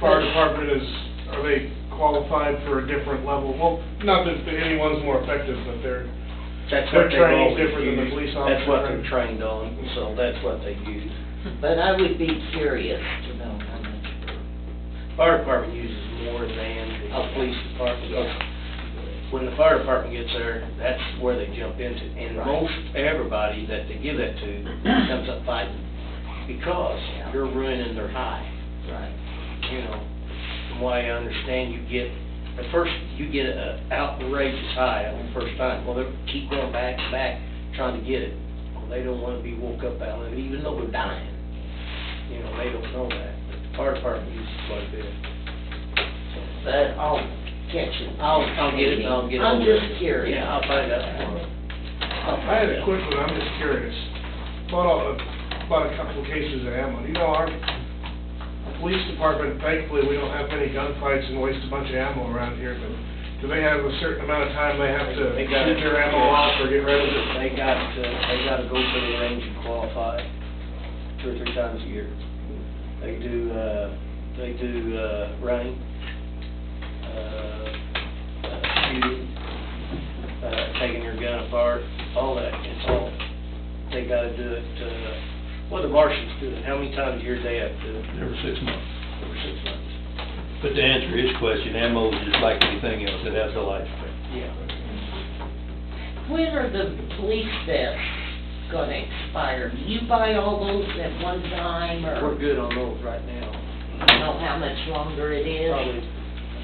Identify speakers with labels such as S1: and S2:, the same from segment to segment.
S1: fire department is, are they qualified for a different level? Well, not that anyone's more effective, but they're,
S2: That's
S1: Their
S2: what they
S1: training's
S2: always
S1: different than the police
S2: use. That's what
S1: officer.
S2: they're trained on, so that's what they use.
S3: But I would be curious to know how much.
S2: Fire department uses more than
S1: Oh,
S2: the police department. When the fire department gets there, that's where they jump into. And
S3: Right.
S2: most everybody that they give that to comes up fighting because
S3: Yeah.
S2: you're ruining their high,
S3: Right.
S2: you know. From what I understand, you get, at first, you get an outrageous high on the first time. Well, they keep going back and back trying to get it. Well, they don't want to be woke up out of it, even though they're dying. You know, they don't know that. But the fire department uses quite a bit.
S3: But I'll catch it.
S2: I'll, I'll get it, I'll get it.
S3: I'm just curious.
S2: Yeah, I'll find out tomorrow.
S1: I
S2: I'll
S1: had
S2: find
S1: a
S2: out.
S1: quick one, I'm just curious. Bought a, bought a couple of cases of ammo. You know, our police department, thankfully, we don't have many gunfights and waste a bunch of ammo around here, but do they have a certain amount of time they have to
S2: They got-
S1: shoot their ammo off or get rid of it?
S2: They got, to- they gotta go to the range and qualify two or three times a year. They do, uh, they do, uh, running, uh, uh, shooting, uh, taking your gun apart, all that, it's all, they gotta do it, uh, well, the marshals do it, how many times a year they have to do it?
S4: every six months.
S2: Every six months.
S4: But to answer his question, ammo is just like anything else, it has a lifespan.
S2: Yeah.
S3: When are the police vests gonna expire? Do you buy all those at one time, or
S2: We're good on those right now.
S3: you know how much longer it is?
S2: Probably,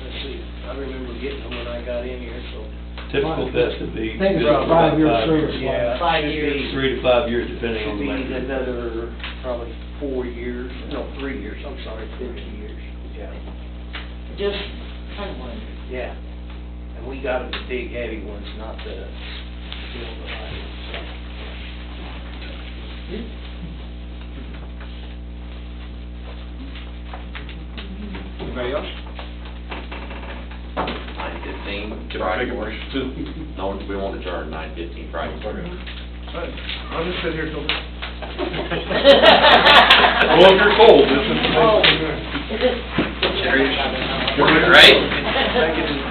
S2: let's see, I remember getting them when I got in here, so.
S4: Typical vest would be.
S5: Think it's
S4: good for about
S5: five years
S4: five
S5: service
S4: years.
S5: life.
S2: Yeah.
S3: Five
S2: should
S3: years.
S2: be-
S4: Three to five years, depending
S2: Should
S4: on the
S2: be
S4: length.
S2: another, probably four years, no, three years, I'm sorry, three years. Yeah.
S3: Just, I wonder.
S2: Yeah, and we got the big heavy ones, not the, you know, the light ones. Anybody else?
S6: Nine fifteen Friday morning. No, we won't adjourn nine fifteen Friday.
S1: I'll just sit here till.
S6: Well, if you're cold, this is.
S3: Oh.
S6: Right?
S2: Thank you.